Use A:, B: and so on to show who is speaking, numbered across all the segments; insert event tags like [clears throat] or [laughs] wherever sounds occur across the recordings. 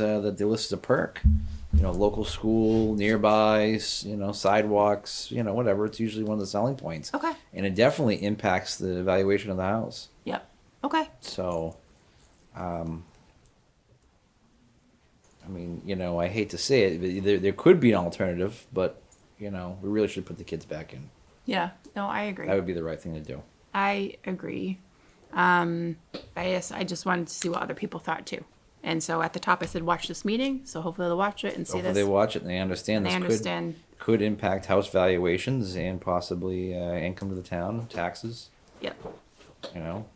A: uh, that they list as a perk. You know, local school, nearby, s- you know, sidewalks, you know, whatever. It's usually one of the selling points.
B: Okay.
A: And it definitely impacts the valuation of the house.
B: Yep. Okay.
A: So, um, I mean, you know, I hate to say it, but there, there could be an alternative, but, you know, we really should put the kids back in.
B: Yeah. No, I agree.
A: That would be the right thing to do.
B: I agree. Um, I guess I just wanted to see what other people thought too. And so at the top I said, watch this meeting. So hopefully they'll watch it and see
A: Hopefully
B: this.
A: they watch it and they understand
B: They
A: this
B: understand.
A: could could impact house valuations and possibly uh, income to the town, taxes.
B: Yep.
A: You know,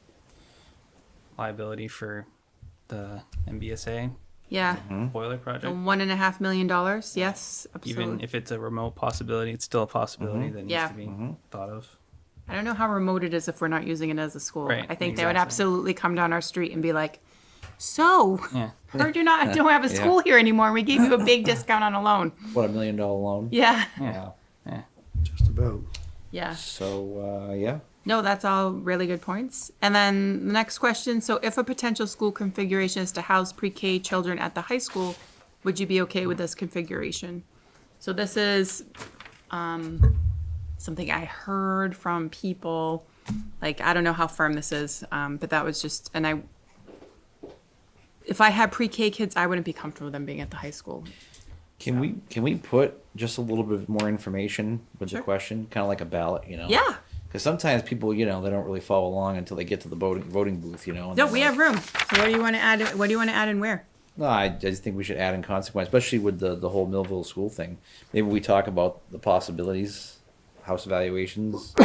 C: liability for the MBSA
B: Yeah.
A: Mm-hmm.
C: boiler project.
B: The One and a half million dollars. Yes. Mm-hmm. Absolutely.
C: Even if it's a remote possibility, it's still a possibility that needs
B: Yeah.
C: to be thought of.
B: I don't know how remote it is if we're not using it as a school.
C: Right,
B: I think they would
C: exactly.
B: absolutely come down our street and be like, "So,
C: Yeah.
B: [laughs] heard you not don't have a
A: [laughs] Yeah.
B: school here anymore. and We gave you a big discount on a loan."
A: what a million dollar loan.
B: Yeah,
A: Yeah.
C: Yeah.
D: Just about.
B: yeah.
A: So uh, yeah,
B: No, that's all really good points. And then the next question: So, if a potential school configuration is to house pre-K children at the high school, would you be okay with this configuration? So this is um, something I heard from people. Like, I don't know how firm this is, um, but that was just, and I, if I had pre-K kids, I wouldn't be comfortable with them being at the high school.
A: can we can we put just a little bit more information with
B: Sure.
A: the question, kind of like a ballot, you know?
B: Yeah.
A: Because sometimes people, you know, they don't really follow along until they get to the voting voting booth, you know. and
B: No,
A: they're
B: we
A: like,
B: have room. So what do you want to add? What do you want to add and where?
A: No, I I just think we should add in consequence, especially with the the whole Millville school thing. Maybe we talk about the possibilities, house valuations, [coughs]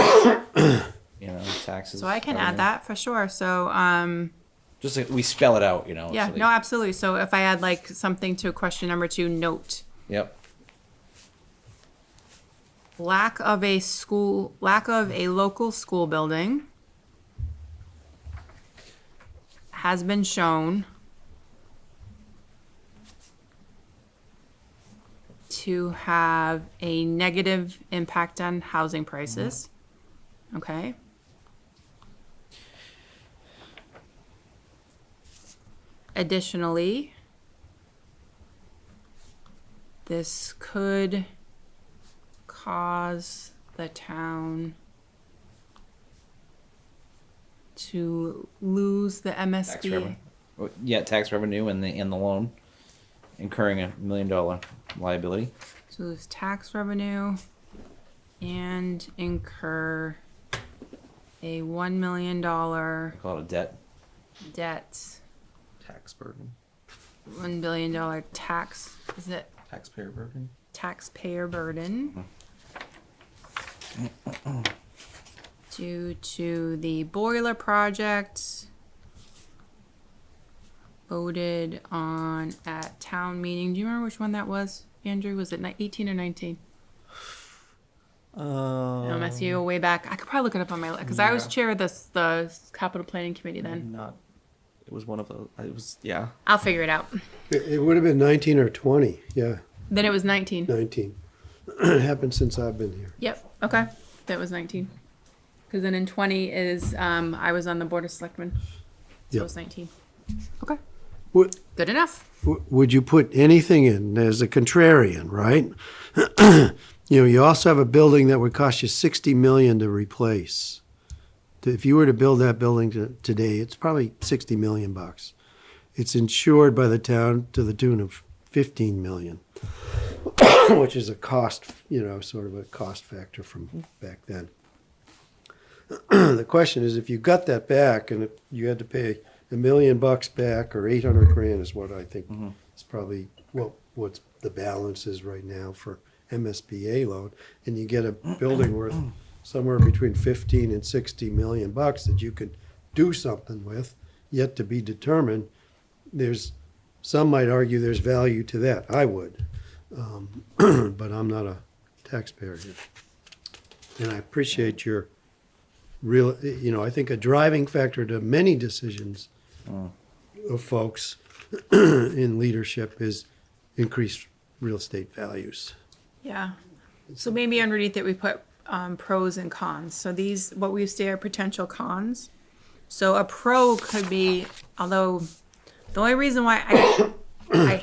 A: you know, taxes.
B: So I can add
A: everything.
B: that for sure. So, um,
A: Just like we spell it out, you know.
B: yeah,
A: so they-
B: no, absolutely. So if I add like something to question number two, note
A: Yep.
B: lack of a school, lack of a local school building has been shown to have a negative impact on housing prices. Okay. Additionally, this could cause the town to lose the
A: Tax
B: MSD.
A: revenue. Oh, Yeah, tax revenue and the and the loan, incurring a million dollar liability.
B: So lose tax revenue and incur a one million dollar
A: Call it a debt.
B: debt,
D: Tax burden.
B: one billion dollar tax, is it
D: Taxpayer burden.
B: taxpayer burden due to the boiler project voted on at town meeting. Do you remember which one that was, Andrew? Was it ni- 18 or 19?
D: Um,
B: No, mess you way back. I could probably look it up on my because I was
D: yeah.
B: chair of this the capital planning committee then.
D: Not. It was one of those. It was yeah.
B: I'll figure it out.
E: It, it would have been 19 or 20. Yeah,
B: Then it was 19.
E: 19. [clears throat] it happened since I've been here.
B: Yep. Okay. That was 19. Because then in 20 is um, I was on the board of selectmen. So it
E: Yep.
B: was 19. Okay.
E: Would,
B: Good enough.
E: w- would you put anything in as a contrarian, right? [clears throat] you know, you also have a building that would cost you 60 million to replace. If you were to build that building to, today, it's probably 60 million bucks. It's insured by the town to the tune of 15 million, [coughs] which is a cost, you know, sort of a cost factor from back then. [clears throat] the question is if you got that back and it, you had to pay a million bucks back or 800 grand is what I think is probably what what's the balance is right now for MSBA loan and you get a building worth somewhere between 15 and 60 million bucks that you could do something with yet to be determined there's some might argue there's value to that I would um, [clears throat] but I'm not a taxpayer here and I appreciate your real, you know, I think a driving factor to many decisions of folks [clears throat] in leadership is increased real estate values.
B: Yeah. So maybe underneath it, we put um, pros and cons. So these, what we say are potential cons. So a pro could be, although the only reason why I, I